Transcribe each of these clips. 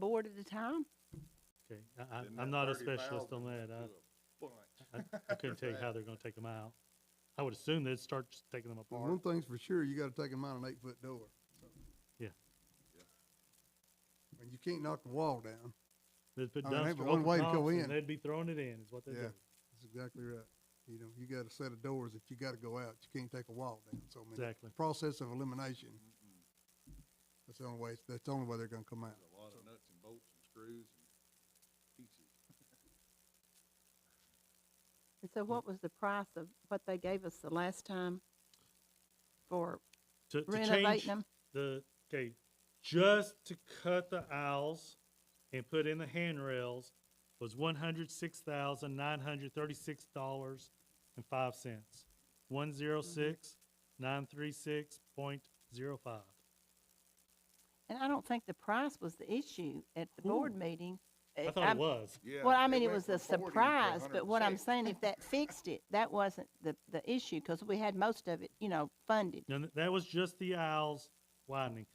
board at the time? Okay, I, I- Then I'm that not a 30,000 specialist on that. to I, a bunch. I couldn't tell you how they're gonna take them out. I would assume they'd start just taking them Well, one apart. thing's for sure, you gotta take them out an eight-foot door. Yeah. Yeah. And you can't knock the wall down. They'd put I mean, they have dumpster one over way to go tops and in. they'd be throwing it in, is what they Yeah. do. That's exactly right. You know, you got a set of doors that you gotta go out. You can't take a wall down. So, I mean, Exactly. process of Mm-hmm. elimination. That's the only way, that's the only way they're gonna come out. There's a lot of nuts and bolts and screws and pieces. And so what was the price of what they gave us the last time for To, to change renovating them? the, okay, just to cut the aisles and put in the handrails was one hundred six thousand nine hundred thirty-six dollars and five cents. One zero six, nine three six point zero five. And I don't think the price was the issue at the board meeting. I thought it was. Yeah. Well, I mean, it was a surprise, but what I'm saying, if that fixed it, that wasn't the, the issue, cause we had most of it, you know, funded. Now, th- that was just the aisles widening.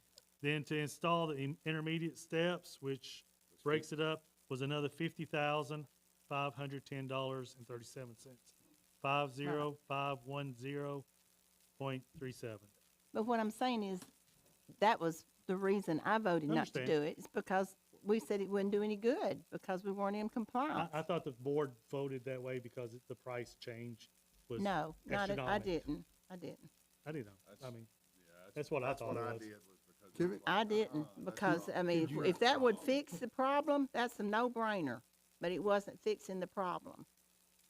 Then to install the in- intermediate steps, which breaks it up, was another fifty thousand, five hundred ten dollars and thirty-seven cents. Five zero, five one zero point three seven. But what I'm saying is, that was the reason I voted not to Understand. do it, it's because we said it wouldn't do any good, because we weren't in I, compliance. I thought the board voted that way because it- the price change was. No, not, at- I astronomic. didn't, I didn't. I didn't know. I That's- mean, Yeah, that's what I That's thought what it I was. did was because. it Give was it- like, I didn't, Uh, uh-uh, that's because, wrong. I mean, if- if that would fix the problem, that's a no-brainer, but it wasn't fixing the problem.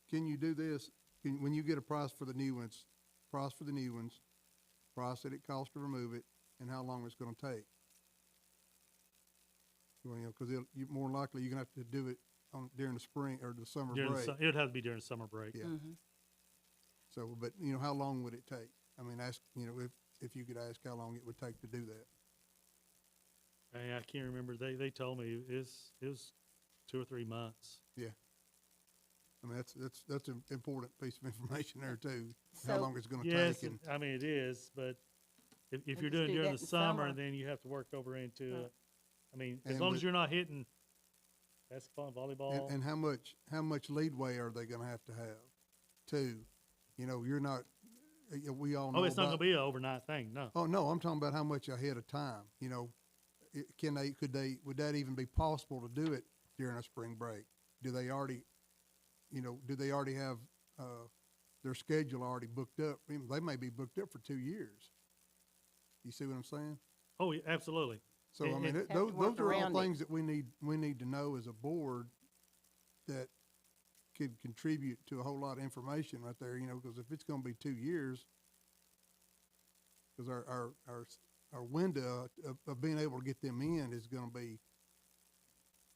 Can you do this, can, when you get a price for the new ones, price for the new ones, price that it costs to remove it, and how long it's gonna take? Well, you know, cause it'll, you, more likely, you're gonna have to do it on, during the spring or the summer during, break. su- it would have to be during summer break. Yeah. Mhm. So, but, you know, how long would it take? I mean, ask, you know, if, if you could ask how long it would take to do that. Hey, I can't remember. They, they told me it's, it was two or three months. I mean, that's, that's, that's an important piece of information there too, how So- long it's gonna Yes, take and, it- I mean, it is, but if, if They you're just doing do during that the in summer, summer. then you have to work over into Right. it. I mean, as And long with- as you're not hitting basketball, and, volleyball, and how much, how much leadway are they gonna have to have too? You know, you're not, uh, yeah, we all know oh, it's not gonna about- be an overnight thing, no. Oh, no, I'm talking about how much ahead of time, you know, it, can they, could they, would that even be possible to do it during a spring break? Do they already, you know, do they already have, uh, their schedule already booked up? I mean, they may be booked up for two years. You see what I'm saying? Oh, yeah, absolutely. So, It- I it- mean, it- to those, work those are all around it. things that we need, we need to know as a board that could contribute to a whole lot of information right there, you know, because if it's gonna be two years, because our, our, our, s- our window of, of being able to get them in is gonna be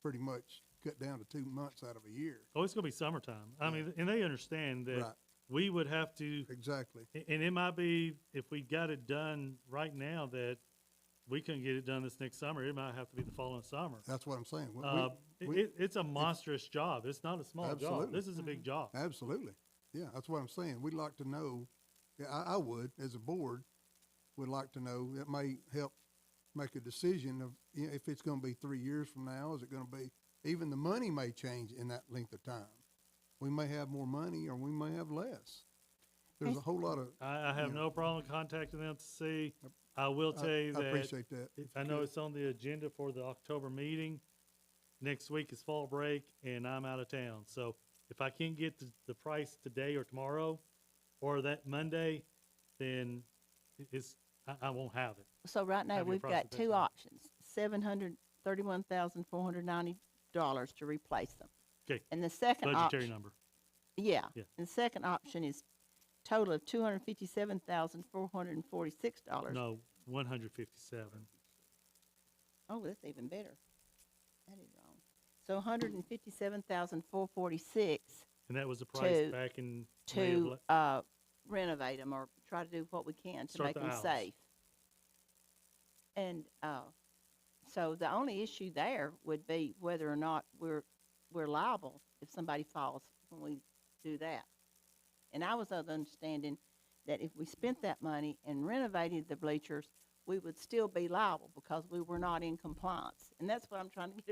pretty much cut down to two months out of a year. Oh, it's gonna be summertime. I Yeah. mean, and they understand Right, that we would have to, exactly. a- and it might be, if we got it done right now, that we couldn't get it done this next summer, it might have to be the following summer. That's what I'm saying. We- we- Uh, it, we- it- it's a monstrous job. It's not a small job. Absolutely. This is a Mm-hmm. big job. Absolutely. Yeah, that's what I'm saying. We'd like to know, yeah, I, I would, as a board, would like to know, it may help make a decision of, you know, if it's gonna be three years from now, is it gonna be, even the money may change in that length of time. We may have more money or we may have less. There's a whole lot of, I, I have Yeah. no problem contacting them to see. I will tell I, you I that, appreciate that. it- if I you know could. it's on the agenda for the October meeting. Next week is fall break and I'm out of town, so if I can't get the, the price today or tomorrow or that Monday, then i- it's, I, I won't have it. So right now, Have your we've got process two done. options, seven hundred thirty-one thousand four hundred ninety dollars to replace them. 'Kay. And the second Budgetary option, number. yeah, Yeah. and the second option is total of two hundred fifty-seven thousand four hundred and forty-six dollars. No, one hundred fifty-seven. Oh, that's even better. That is wrong. So one hundred and fifty-seven thousand four forty-six And that was the price To- back in May of, to, la- uh, renovate them or try to do what we can to Start make the them aisles. safe. And, uh, so the only issue there would be whether or not we're, we're liable if somebody falls when we do that. And I was of the understanding that if we spent that money and renovated the bleachers, we would still be liable because we were not in compliance. And that's what I'm trying to get